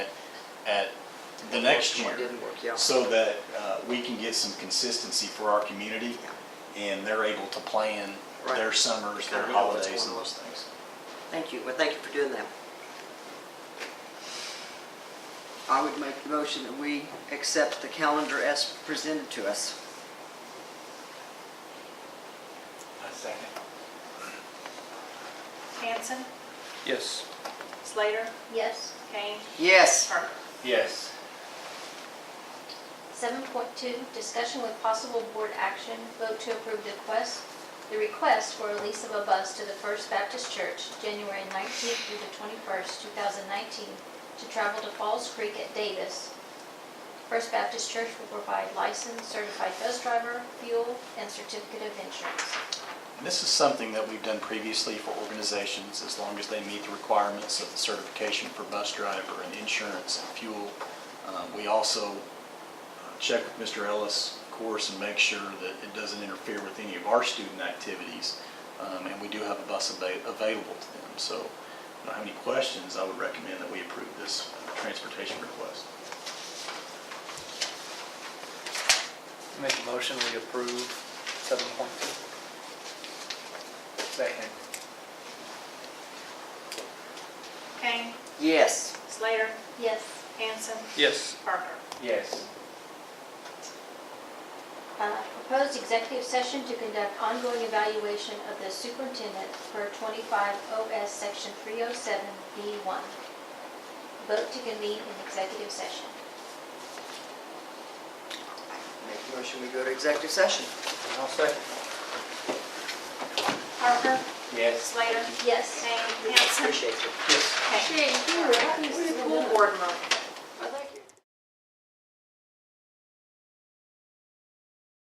at the next What year. Didn't work, yeah. So that uh, we can get some consistency for our community and they're able to plan Right. their summers, their Kinda know what's holidays and going on. those things. Thank you, well, thank you for doing that. I would make the motion that we accept the calendar as presented to us. Hanson, Yes. Slater, Yes. Kane, Yes, Parker. Yes. Seven point two, discussion with possible board action, vote to approve the request, the request for a lease of a bus to the First Baptist Church, January nineteenth through the twenty-first, two thousand nineteen, to travel to Falls Creek at Davis. First Baptist Church will provide licensed certified bus driver, fuel, and certificate of insurance. And This is something that we've done previously for organizations, as long as they meet the requirements of the certification for bus driver and insurance and fuel. Uh, We also uh, check with Mr. Ellis, of course, and make sure that it doesn't interfere with any of our student activities. Um, And we do have a bus ava- available to them. So if you don't have any questions, I would recommend that we approve this transportation request. Make a motion, we approve seven point two. Second. Kane, yes, Slater, Yes. Hanson, Yes. Parker. Yes. Uh, Proposed executive session to conduct ongoing evaluation of the superintendent per 25 OS Section 307B1. Vote to convene in executive session. make the motion, we go to executive session. I'll second. Parker, Yes. Slater, Yes. Kane, Hanson, Appreciate it. Yes. Kane. Shannon, you were right. School board member.